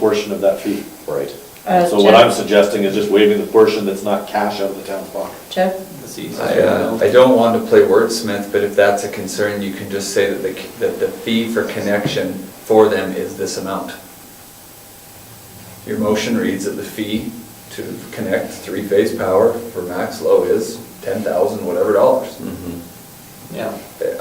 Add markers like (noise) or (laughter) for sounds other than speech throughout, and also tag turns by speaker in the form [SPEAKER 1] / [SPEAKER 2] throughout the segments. [SPEAKER 1] portion of that fee.
[SPEAKER 2] Right.
[SPEAKER 3] Uh,
[SPEAKER 1] So what I'm
[SPEAKER 3] Jeff-
[SPEAKER 1] suggesting is just waiving the portion that's not cash out of the town's pocket.
[SPEAKER 3] Jeff,
[SPEAKER 4] That's the easiest way
[SPEAKER 5] I,
[SPEAKER 4] to
[SPEAKER 5] uh,
[SPEAKER 4] go.
[SPEAKER 5] I don't want to play wordsmith, but if that's a concern, you can just say that the, that the fee for connection for them is this amount. Your motion reads that the fee to connect three-phase power for max low is ten thousand, whatever dollars.
[SPEAKER 4] Yeah.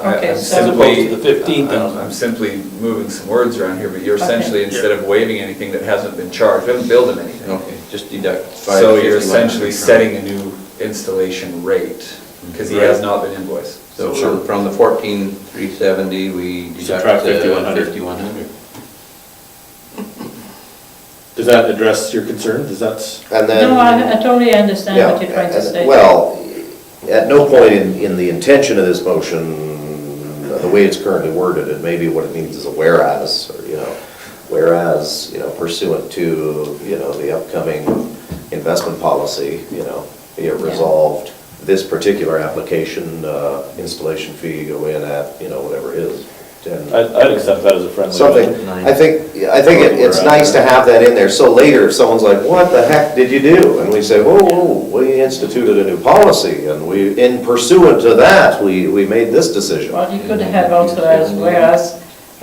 [SPEAKER 5] I-
[SPEAKER 3] Okay,
[SPEAKER 5] I'm
[SPEAKER 3] so- As
[SPEAKER 4] opposed
[SPEAKER 5] simply- uh,
[SPEAKER 4] to the 15,000.
[SPEAKER 5] I'm I'm simply moving some words around here, but you're
[SPEAKER 3] Okay.
[SPEAKER 5] essentially, instead of waiving anything that hasn't been charged, we haven't billed them anything.
[SPEAKER 2] Okay, just deduct five.
[SPEAKER 5] So you're
[SPEAKER 2] 5100
[SPEAKER 5] essentially
[SPEAKER 2] from-
[SPEAKER 5] setting a new installation rate, because he has not been invoiced.
[SPEAKER 2] So from- from the fourteen, three seventy, we deduct
[SPEAKER 1] Subtract
[SPEAKER 2] the
[SPEAKER 1] 5100.
[SPEAKER 2] fifty-one hundred.
[SPEAKER 1] Does that address your concern? Does that,
[SPEAKER 6] And then.
[SPEAKER 3] no, I I totally understand what
[SPEAKER 6] Yeah,
[SPEAKER 3] you're trying to
[SPEAKER 6] and-
[SPEAKER 3] say.
[SPEAKER 6] Well, at no point in, in the intention of this motion, the way it's currently worded, it may be what it means is a whereas, or, you know, whereas, you know, pursuant to, you know, the upcoming investment policy, you know, be it
[SPEAKER 3] Yeah.
[SPEAKER 6] resolved, this particular application, uh, installation fee go in at, you know, whatever it is, ten,
[SPEAKER 1] I'd, I'd accept that as a friendly amendment.
[SPEAKER 6] something. I think, I think it- it's nice to have that in there, so later if someone's like, what the heck did you do? And we say, whoa, whoa, we instituted a new policy, and we, in pursuant to that, we, we made this decision.
[SPEAKER 3] Well, you could have also as, whereas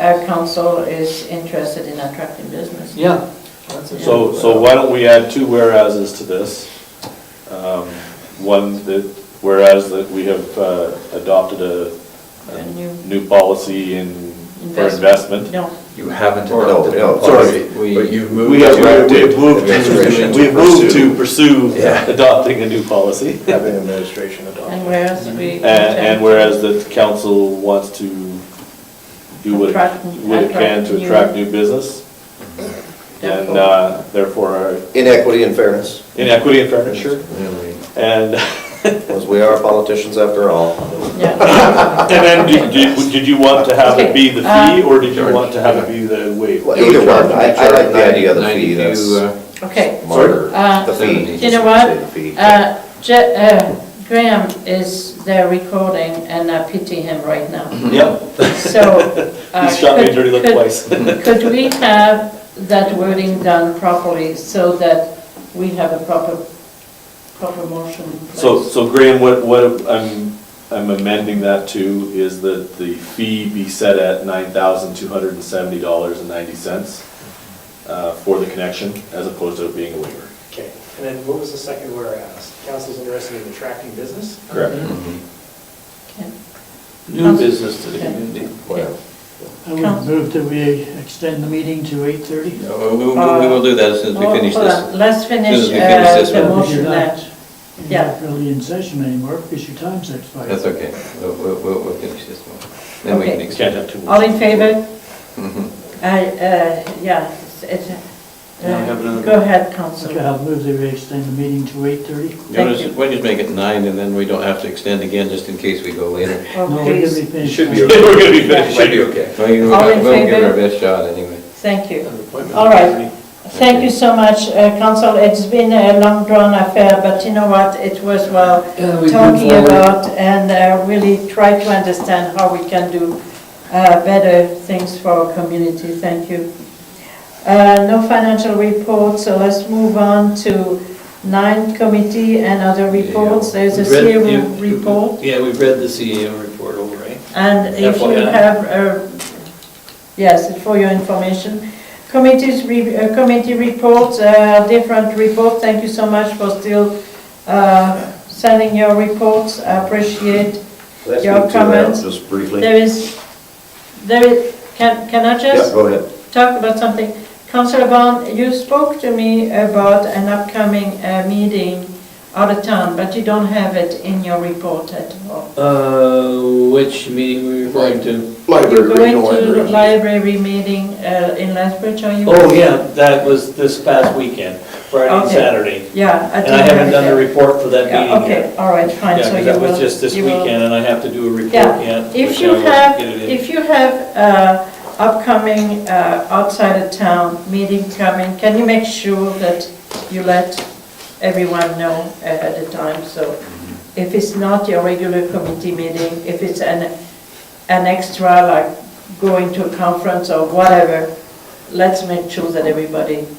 [SPEAKER 3] our council is interested in attracting business.
[SPEAKER 4] Yeah. That's it.
[SPEAKER 1] So, so why don't we add two whereases to this? Um, One, that whereas that we have uh, adopted a,
[SPEAKER 3] A
[SPEAKER 1] a
[SPEAKER 3] new-
[SPEAKER 1] new policy in, for investment.
[SPEAKER 3] No,
[SPEAKER 5] You haven't
[SPEAKER 6] Or no,
[SPEAKER 5] adopted
[SPEAKER 6] no,
[SPEAKER 5] a
[SPEAKER 6] sorry,
[SPEAKER 5] policy,
[SPEAKER 2] we-
[SPEAKER 5] Oh, but you've moved
[SPEAKER 1] We have,
[SPEAKER 5] to.
[SPEAKER 1] we have moved to,
[SPEAKER 6] Administration to
[SPEAKER 1] we have moved to pursue
[SPEAKER 5] Yeah.
[SPEAKER 1] adopting a new policy.
[SPEAKER 7] having administration adopt.
[SPEAKER 3] and whereas we.
[SPEAKER 1] And, Uh, and whereas the council wants to do what it,
[SPEAKER 3] Attract-
[SPEAKER 1] what it can
[SPEAKER 3] attract
[SPEAKER 1] to
[SPEAKER 3] new-
[SPEAKER 1] attract new business, and uh, therefore our
[SPEAKER 6] Inequity and fairness,
[SPEAKER 1] inequity and fairness, sure. And, (laughs)
[SPEAKER 6] because we are politicians after all. (laughs)
[SPEAKER 3] Yeah.
[SPEAKER 1] and then, did- did did you want to have it be the
[SPEAKER 3] Okay, uh,
[SPEAKER 1] fee, or did you want to have it be the wage?
[SPEAKER 6] Well, Either one, I, I like the idea of the fee, that's
[SPEAKER 2] uh,
[SPEAKER 3] Okay.
[SPEAKER 6] smarter,
[SPEAKER 3] Uh,
[SPEAKER 6] the fee.
[SPEAKER 3] You know
[SPEAKER 6] Say the
[SPEAKER 3] what?
[SPEAKER 6] fee.
[SPEAKER 3] Uh, Je- uh, Graham is there recording and I pity him right
[SPEAKER 1] (laughs)
[SPEAKER 3] now.
[SPEAKER 1] Yep,
[SPEAKER 3] So. uh,
[SPEAKER 1] he's shot me a
[SPEAKER 3] could-
[SPEAKER 1] dirty look
[SPEAKER 3] could-
[SPEAKER 1] twice.
[SPEAKER 3] Could we have that wording done properly so that we have a proper, proper motion? in place?
[SPEAKER 1] So, so Graham, what, what I'm, I'm amending that to is that the fee be set at nine thousand two hundred and seventy dollars and ninety cents uh, for the connection, as opposed to it being a waiver.
[SPEAKER 7] Okay, and then what was the second whereas? Council's interested in attracting business?
[SPEAKER 5] Mm-hmm.
[SPEAKER 1] Correct.
[SPEAKER 3] Okay.
[SPEAKER 4] New business to the
[SPEAKER 3] Okay.
[SPEAKER 4] community.
[SPEAKER 6] Well,
[SPEAKER 8] I would move that we extend the meeting to 8:30.
[SPEAKER 2] We will, we will do that as soon as we
[SPEAKER 3] Oh,
[SPEAKER 2] finish
[SPEAKER 3] hold
[SPEAKER 2] this.
[SPEAKER 3] on. Let's
[SPEAKER 2] As
[SPEAKER 3] finish
[SPEAKER 2] soon as we finish
[SPEAKER 3] uh,
[SPEAKER 2] this
[SPEAKER 3] the
[SPEAKER 2] one.
[SPEAKER 3] motion
[SPEAKER 8] You're
[SPEAKER 3] there.
[SPEAKER 8] not- You're
[SPEAKER 3] Yeah.
[SPEAKER 8] not really in session anymore because your time's expired.
[SPEAKER 2] That's okay, we'll, we'll- we'll, we'll finish this one. Then we can
[SPEAKER 3] Okay.
[SPEAKER 1] You
[SPEAKER 2] extend
[SPEAKER 1] can't
[SPEAKER 2] it.
[SPEAKER 1] have two.
[SPEAKER 3] All in favor?
[SPEAKER 2] Mhm.
[SPEAKER 3] I, uh, yeah, it's- it's, uh,
[SPEAKER 4] Now we have another-
[SPEAKER 3] Go ahead, council.
[SPEAKER 8] Okay, I'll move that we extend the meeting to 8:30.
[SPEAKER 2] You
[SPEAKER 3] Thank
[SPEAKER 2] wanna
[SPEAKER 3] you.
[SPEAKER 2] just- Why don't you just make it nine, and then we don't have to extend again, just in case we go later.
[SPEAKER 3] Well,
[SPEAKER 8] No, we're gonna
[SPEAKER 3] Oh, please,
[SPEAKER 8] be finished.
[SPEAKER 5] Should be
[SPEAKER 8] by-
[SPEAKER 1] (laughs) We're gonna be
[SPEAKER 5] It
[SPEAKER 1] finishing.
[SPEAKER 5] Should be okay.
[SPEAKER 2] Well, you know,
[SPEAKER 3] All in
[SPEAKER 2] We'll give it our
[SPEAKER 3] favor?
[SPEAKER 2] best shot, anyway.
[SPEAKER 3] thank you.
[SPEAKER 4] An appointment.
[SPEAKER 3] All right. Thank you so much, uh, council. It's been a long drawn affair, but you know what? It was well
[SPEAKER 4] Yeah, we
[SPEAKER 3] talking
[SPEAKER 4] moved forward.
[SPEAKER 3] about and uh, really try to understand how we can do uh, better things for our community. Thank you. Uh, No financial report, so let's move on to nine committee and other reports. There's a
[SPEAKER 4] We've read-
[SPEAKER 3] CEO
[SPEAKER 4] you-
[SPEAKER 3] report.
[SPEAKER 4] Yeah, we've read the CEO report over, right?
[SPEAKER 3] And if you
[SPEAKER 4] FYI.
[SPEAKER 3] have, uh, yes, for your information, committees, re- uh, committee reports, uh, different reports, thank you so much for still uh, sending your reports, I appreciate.
[SPEAKER 6] let's
[SPEAKER 3] Your
[SPEAKER 6] move to that
[SPEAKER 3] comments.
[SPEAKER 6] Just briefly.
[SPEAKER 3] There is, there is, can can I
[SPEAKER 6] Yeah,
[SPEAKER 3] just
[SPEAKER 6] go ahead.
[SPEAKER 3] talk about something? Councillor Bond, you spoke to me about an upcoming uh, meeting out of town, but you don't have it in your report at all.
[SPEAKER 4] Uh, which meeting were you referring to?
[SPEAKER 3] You're going to the library meeting uh, in Lethbridge, are you?
[SPEAKER 4] Oh, yeah, that was this past weekend, Friday and
[SPEAKER 3] Okay.
[SPEAKER 4] Saturday.
[SPEAKER 3] Yeah.
[SPEAKER 4] And
[SPEAKER 3] didn't
[SPEAKER 4] I haven't
[SPEAKER 3] have
[SPEAKER 4] done the
[SPEAKER 3] that.
[SPEAKER 4] report for that
[SPEAKER 3] Yeah,
[SPEAKER 4] meeting yet.
[SPEAKER 3] okay, all right, fine,
[SPEAKER 4] Yeah,
[SPEAKER 3] so you will.
[SPEAKER 4] because that was just this
[SPEAKER 3] you will-
[SPEAKER 4] weekend, and I have to do a report
[SPEAKER 3] Yeah.
[SPEAKER 4] yet.
[SPEAKER 3] If
[SPEAKER 4] which
[SPEAKER 3] you
[SPEAKER 4] I will
[SPEAKER 3] have,
[SPEAKER 4] get it in.
[SPEAKER 3] if you have uh, upcoming uh, outside of town meeting coming, can you make sure that you let everyone know ahead of time? So
[SPEAKER 4] Mm-hmm.
[SPEAKER 3] if it's not your regular committee meeting, if it's an, an extra, like going to a conference or whatever, let's make sure that everybody